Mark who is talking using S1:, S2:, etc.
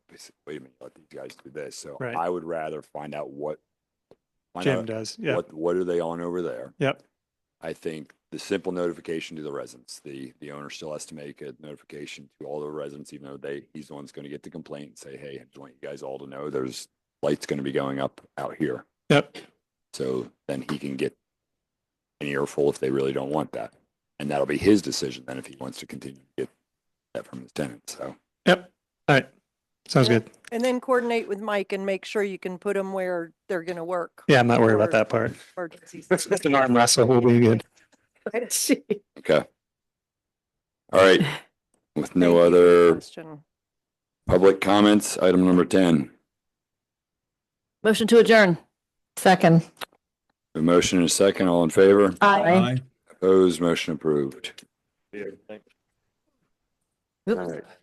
S1: guys, wait a minute, let these guys do this. So
S2: Right.
S1: I would rather find out what. find
S2: Jim
S1: out
S2: does. Yeah.
S1: What, what are they on over there?
S2: Yep.
S1: I think the simple notification to the residents, the, the owner still has to make a notification to all the residents, even though they, he's the one that's going to get the complaint and say, hey, I just want you guys all to know there's lights going to be going up out here.
S2: Yep.
S1: So then he can get an earful if they really don't want that. And that'll be his decision then if he wants to continue to get that from his tenant. So
S2: Yep. All right. Sounds
S3: Yeah.
S2: good.
S3: And then coordinate with Mike and make sure you can put them where they're gonna work.
S2: Yeah, I'm not worried
S3: Or-
S2: about that part.
S3: emergencies.
S2: Just an arm wrestle. We'll be good.
S1: Okay. All right. With no other
S3: Question.
S1: public comments, item number ten.
S4: Motion to adjourn.
S5: Second.
S1: A motion and a second, all in favor?
S5: Aye.
S1: Opposed, motion approved.
S5: Oops.